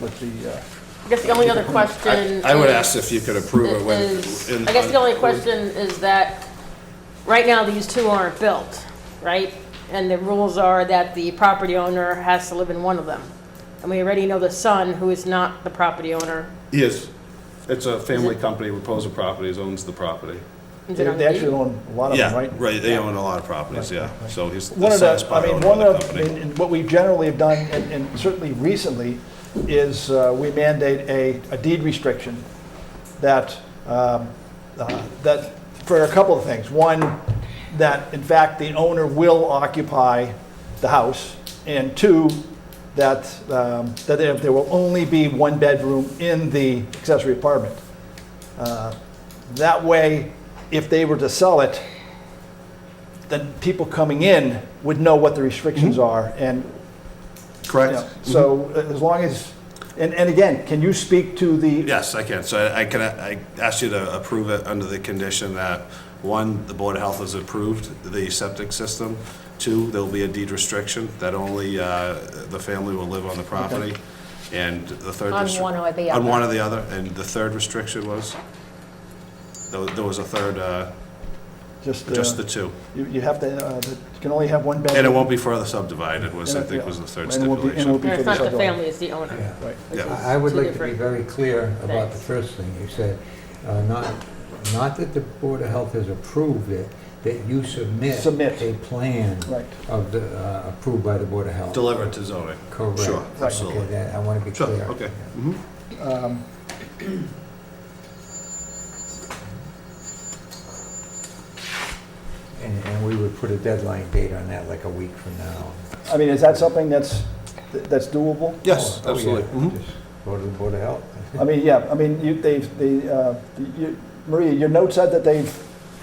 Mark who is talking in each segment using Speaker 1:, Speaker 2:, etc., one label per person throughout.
Speaker 1: but the, uh,
Speaker 2: I guess the only other question.
Speaker 3: I I would
Speaker 2: is-
Speaker 3: ask if you could approve it
Speaker 2: is-
Speaker 3: when. in-
Speaker 2: I guess the only question is that, right now, these two aren't built, right? And the rules are that the property owner has to live in one of them. And we already know the son, who is not the property owner,
Speaker 3: He is. It's a family company, Reposa Properties owns the property.
Speaker 2: is
Speaker 1: they
Speaker 2: it on
Speaker 1: they
Speaker 2: the
Speaker 1: actually
Speaker 2: deed?
Speaker 1: own a lot of them,
Speaker 3: Yeah,
Speaker 1: Oh, right?
Speaker 3: right, they own a lot of properties, yeah, so he's the
Speaker 1: One of
Speaker 3: son's
Speaker 1: the, I
Speaker 3: part
Speaker 1: mean,
Speaker 3: owner
Speaker 1: one
Speaker 3: of the
Speaker 1: of, and
Speaker 3: company.
Speaker 1: and what we generally have done, and and certainly recently, is uh, we mandate a a deed restriction that, um, uh, that, for a couple of things. One, that in fact, the owner will occupy the house. And two, that, um, that there there will only be one bedroom in the accessory apartment. Uh, That way, if they were to sell it, then people coming in would know what the restrictions
Speaker 3: Mm-hmm.
Speaker 1: are. And you know,
Speaker 3: Correct?
Speaker 1: so uh, as long as, and, and again, can you speak to the,
Speaker 3: Yes, I can. So I- I can, I ask you to approve it under the condition that, one, the Board of Health has approved the septic system. Two, there'll be a deed restriction that only uh, the family will live on the property. And the third.
Speaker 4: On
Speaker 3: restri-
Speaker 4: one or the
Speaker 3: On
Speaker 4: other.
Speaker 3: one or the other. And the third restriction was? There wa- there was a third, uh,
Speaker 1: just,
Speaker 3: just the
Speaker 1: uh,
Speaker 3: two.
Speaker 1: you you have to, uh, you can only have one bedroom?
Speaker 3: And it won't be further subdivided was, I
Speaker 1: And it-
Speaker 3: think,
Speaker 1: yeah.
Speaker 3: was the third
Speaker 1: And it won't be- and it
Speaker 3: stipulation.
Speaker 1: won't be
Speaker 2: No,
Speaker 1: for
Speaker 2: It's not the
Speaker 1: subdivision.
Speaker 2: family, it's the owner.
Speaker 1: Right.
Speaker 3: Yeah,
Speaker 5: I I would
Speaker 2: Two
Speaker 5: like to be
Speaker 2: different-
Speaker 5: very clear about the
Speaker 2: Thanks.
Speaker 5: first thing you said. Uh, Not, not that the Board of Health has approved it, that you submit.
Speaker 1: Submit.
Speaker 5: A plan.
Speaker 1: Right.
Speaker 5: Of the, uh, approved by the Board of Health.
Speaker 3: delivered to zoning.
Speaker 5: Correct.
Speaker 3: Sure,
Speaker 5: Okay,
Speaker 3: absolutely.
Speaker 5: that- I want to be
Speaker 3: Sure,
Speaker 5: clear.
Speaker 3: okay. Mm-hmm.
Speaker 5: And, and we would put a deadline date on that, like a week from now.
Speaker 1: I mean, is that something that's, that's doable?
Speaker 3: Yes,
Speaker 5: Oh, oh, yeah,
Speaker 3: absolutely. Uh, Mhm.
Speaker 5: just Go to the Board of Health.
Speaker 1: I mean, yeah, I mean, you, they've, they, uh, you, Maria, your note said that they've,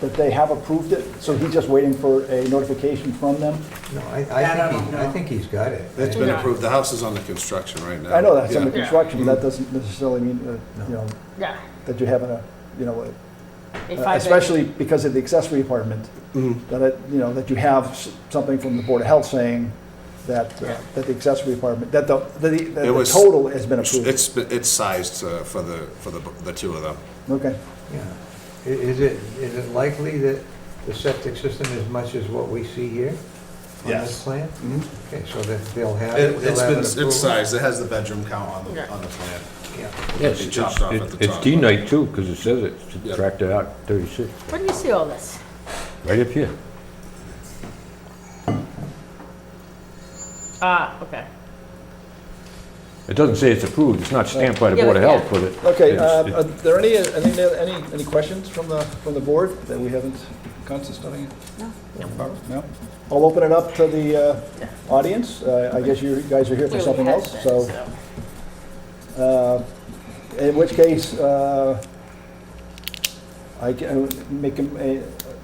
Speaker 1: that they have approved it, so he's just waiting for a notification from them?
Speaker 5: No, I, I think, he- I think he's got it.
Speaker 3: It's been approved. The house is under construction right now.
Speaker 1: I know that's under
Speaker 3: Yeah.
Speaker 1: construction, but that doesn't necessarily mean, uh, you know,
Speaker 2: Yeah.
Speaker 1: that you have a, you know, a-
Speaker 2: a five-bedroom.
Speaker 1: especially because of the accessory apartment,
Speaker 3: Mm-hmm.
Speaker 1: that, it- you know, that you have s- something from the Board of Health saying that, uh, that the accessory apartment, that the, that the that
Speaker 3: It
Speaker 1: the
Speaker 3: was-
Speaker 1: total has been approved.
Speaker 3: It's, it's sized uh, for the, for the, the two of them.
Speaker 1: Okay.
Speaker 5: Yeah. I- Is it, is it likely that the septic system is much as what we see here? On
Speaker 3: Yes. Mm-hmm.
Speaker 5: this plan? Okay, so that they'll have.
Speaker 3: It-
Speaker 5: they'll
Speaker 3: It's
Speaker 5: have
Speaker 3: been,
Speaker 5: an approval?
Speaker 3: it's sized, it has the bedroom count on
Speaker 2: Yeah.
Speaker 3: the, on the plan.
Speaker 5: Yeah.
Speaker 3: Yes. It chopped off at the
Speaker 6: It- It's
Speaker 3: top.
Speaker 6: D-Night too, because it says it,
Speaker 3: Yeah.
Speaker 6: subtracted out 36,
Speaker 2: Where do you see all this?
Speaker 6: right up here.
Speaker 2: Ah, okay.
Speaker 6: It doesn't say it's approved, it's not stamped by the
Speaker 2: Yeah,
Speaker 6: Board of
Speaker 2: but-
Speaker 6: Health with it.
Speaker 1: Okay,
Speaker 6: It's-
Speaker 1: uh,
Speaker 6: it-
Speaker 1: are there any, any, uh, any- any questions from the, from the board that we haven't consist on yet? No. No? I'll open it up to the uh, audience. Uh, I guess you guys are here for
Speaker 2: Clearly
Speaker 1: something
Speaker 2: has
Speaker 1: else,
Speaker 2: been,
Speaker 1: so, uh, in which case, uh, I can make a, a-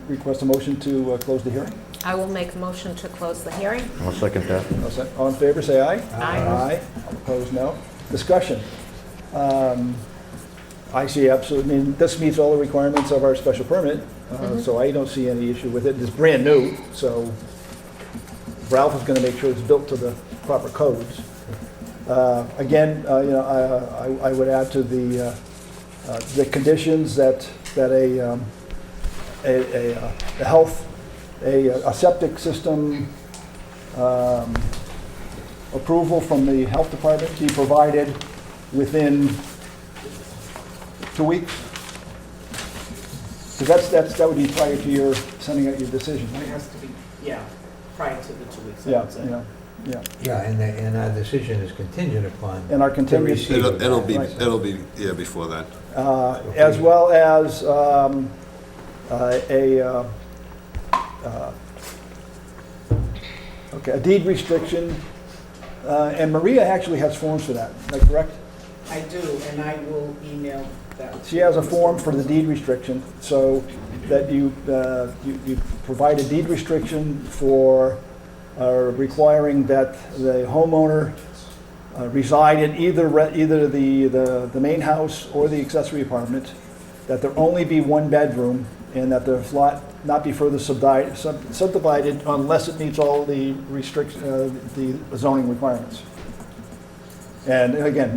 Speaker 1: request a motion to uh, close the hearing.
Speaker 4: I will make a motion to close the hearing.
Speaker 6: I'll second that.
Speaker 1: All set? All in favor, say aye.
Speaker 4: Aye.
Speaker 1: All opposed, no. Discussion. Um, I see absolutely, I mean, this meets all the requirements of our special permit, uh, so I don't see any issue with it. It's brand new, so Ralph is going to make sure it's built to the proper codes. Uh, Again, uh, you know, I- I I would add to the, uh, uh, the conditions that, that a, um, a, a, uh, a health, a, a septic system um, approval from the health department be provided within two weeks? Because that's, that's, that would be prior to your sending out your decision,
Speaker 7: It
Speaker 1: right?
Speaker 7: has to be, yeah, prior to the two weeks, I
Speaker 1: Yeah,
Speaker 7: would
Speaker 1: you
Speaker 7: say.
Speaker 1: know, yeah.
Speaker 5: Yeah, and, the- and our decision is contingent upon.
Speaker 1: And our
Speaker 5: the
Speaker 1: contingent-
Speaker 5: receipt of
Speaker 3: It'll, it'll be,
Speaker 1: Right.
Speaker 3: it'll be, yeah, before that.
Speaker 1: Uh, As well as um, uh, a, uh, uh, okay, a deed restriction. Uh, And Maria actually has forms for that, is that correct?
Speaker 7: I do, and I will email that.
Speaker 1: She has a
Speaker 7: to
Speaker 1: form
Speaker 7: Mr.
Speaker 1: for the deed restriction, so that you, uh, you you provide a deed restriction for uh, requiring that the homeowner uh, reside in either, re- either the, the, the main house or the accessory apartment, that there only be one bedroom, and that the lot not be further subdi- sub- subdivided unless it meets all the restrict, uh, the zoning requirements. And again,